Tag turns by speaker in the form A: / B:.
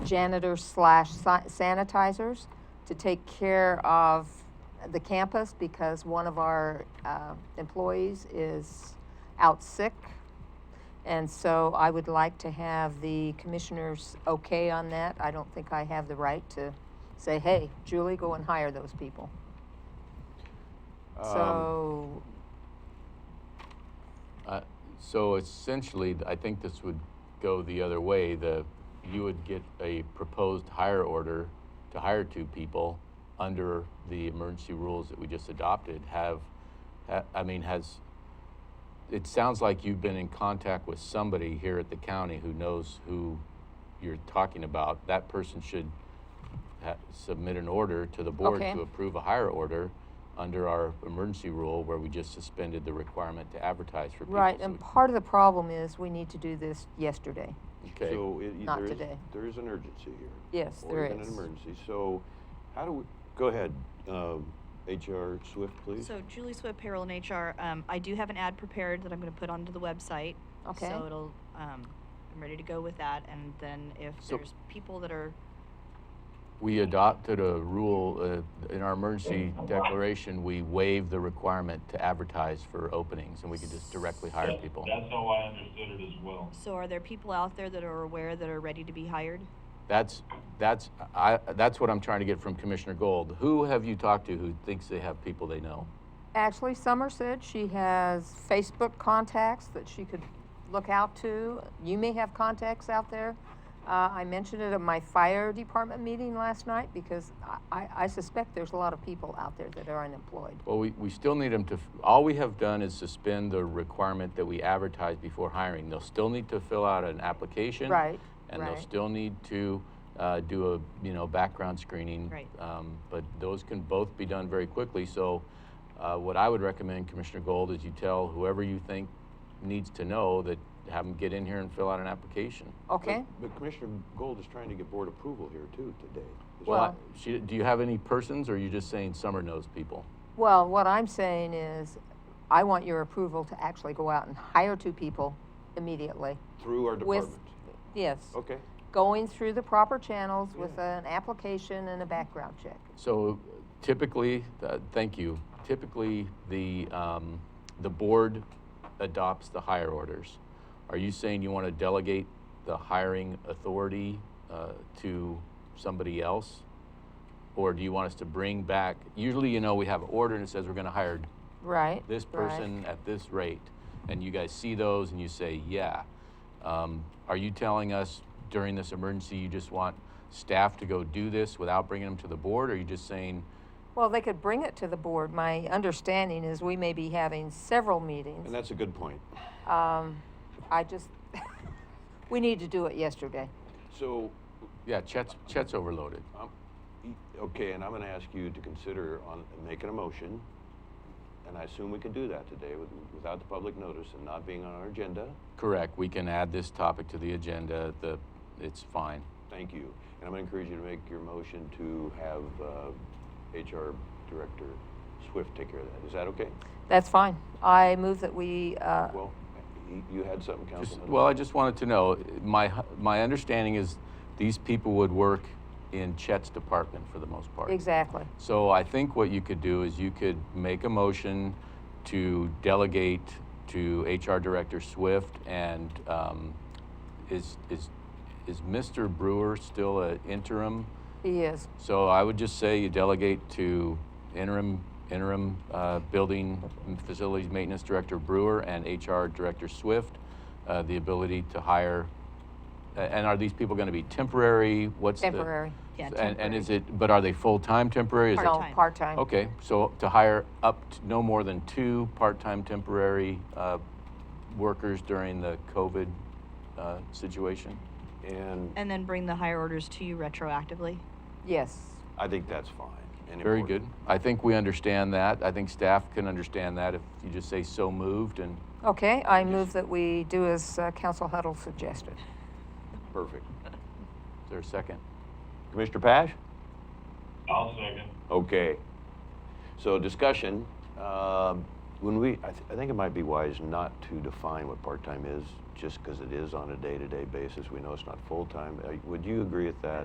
A: janitors slash sa- sanitizers to take care of the campus because one of our uh, employees is out sick. And so I would like to have the commissioners okay on that. I don't think I have the right to say, hey, Julie, go and hire those people.
B: Um,
A: So,
B: uh, So essentially, th- I think this would go the other way. The, you would get a proposed hire order to hire two people under the emergency rules that we just adopted. Have, ha- I mean, has, it sounds like you've been in contact with somebody here at the county who knows who you're talking about. That person should ha- submit an order to the board
A: Okay.
B: to approve a hire order under our emergency rule where we just suspended the requirement to advertise for people.
A: right,
B: So
A: and
B: we-
A: part of the problem is we need to do this yesterday.
B: Okay,
C: So it, y-
A: Not
C: there is,
A: today.
C: there is an urgency here.
A: Yes,
C: or
A: there
C: even
A: is.
C: an emergency. So how do we, go ahead, um, HR Swift, please.
D: So Julie Swift, payroll and HR, um, I do have an ad prepared that I'm gonna put onto the website.
A: Okay.
D: So it'll, um, I'm ready to go with that, and then if
B: So-
D: there's people that are,
B: we adopted a rule, uh, in our emergency declaration, we waive the requirement to advertise for openings and we could just directly hire
E: That-
B: people.
E: That's how I understood it as well.
D: so are there people out there that are aware that are ready to be hired?
B: That's, that's, I, that's what I'm trying to get from Commissioner Gold. Who have you talked to who thinks they have people they know?
A: Ashley Summer said she has Facebook contacts that she could look out to. You may have contacts out there. Uh, I mentioned it at my fire department meeting last night because I, I, I suspect there's a lot of people out there that are unemployed.
B: Well, we, we still need them to, f- all we have done is suspend the requirement that we advertise before hiring. They'll still need to fill out an application.
A: Right,
B: And they'll
A: right.
B: still need to uh, do a, you know, background screening.
D: Right.
B: Um, But those can both be done very quickly. So uh, what I would recommend, Commissioner Gold, is you tell whoever you think needs to know that, have them get in here and fill out an application.
A: Okay?
C: But Commissioner Gold is trying to get board approval here too today. Is
B: So I-
A: Well-
B: She, do you have any persons or are you just saying Summer knows people?
A: Well, what I'm saying is I want your approval to actually go out and hire two people immediately.
C: that Through our
A: with-
C: department.
A: Yes.
C: Okay,
A: Going through the proper channels with an application and a background check.
B: So typically, uh, thank you, typically, the, um, the board adopts the hire orders. Are you saying you want to delegate the hiring authority uh, to somebody else? Or do you want us to bring back, usually, you know, we have an order and it says we're going to hire
A: Right?
B: this
A: right.
B: person at this rate, and you guys see those and you say, yeah. Um, are you telling us during this emergency you just want staff to go do this without bringing them to the board, or are you just saying,
A: Well, they could bring it to the board. My understanding is we may be having several
C: and
A: meetings.
C: that's a good point.
A: Um, I just, we need to do it yesterday.
C: So,
B: yeah, Chet's, Chet's overloaded?
C: um, y- okay, and I'm gonna ask you to consider on, making a motion, and I assume we can do that today with, without the public notice and not being on our agenda.
B: Correct. We can add this topic to the agenda. The, it's fine.
C: Thank you. And I'm going to encourage you to make your motion to have uh, HR Director Swift take care of that. Is that okay?
A: That's fine. I move that we, uh,
C: Well, y- you had something,
B: Just,
C: Councilman?
B: well, I just wanted to know, my, hu- my understanding is these people would work in Chet's department for the most part.
A: exactly.
B: So I think what you could do is you could make a motion to delegate to HR Director Swift and um, is, is, is Mr. Brewer still an interim?
A: He is.
B: So I would just say you delegate to interim, interim uh, Building and Facilities Maintenance Director Brewer and HR Director Swift uh, the ability to hire. a- And are these people going to be temporary? What's the-
A: Temporary.
D: Yeah,
B: And, and is it, but are they full-time temporary? Is it-
A: No,
D: Part-time.
A: part-time.
B: Okay, so to hire up to no more than two part-time temporary uh, workers during the COVID uh, situation?
C: And
D: And then bring the hire orders to you retroactively?
A: Yes.
C: I think that's fine. and
B: Very good.
C: important.
B: I think we understand that. I think staff can understand that if you just say so moved and
A: Okay, I move that we do as uh, Council Huddle suggested.
C: Perfect.
B: is there a second?
C: Commissioner Pash?
E: I'll second.
C: Okay. So discussion, um, when we, I, th- I think it might be wise not to define what part-time is, just because it is on a day-to-day basis. We know it's not full-time. Uh, Would you agree with that?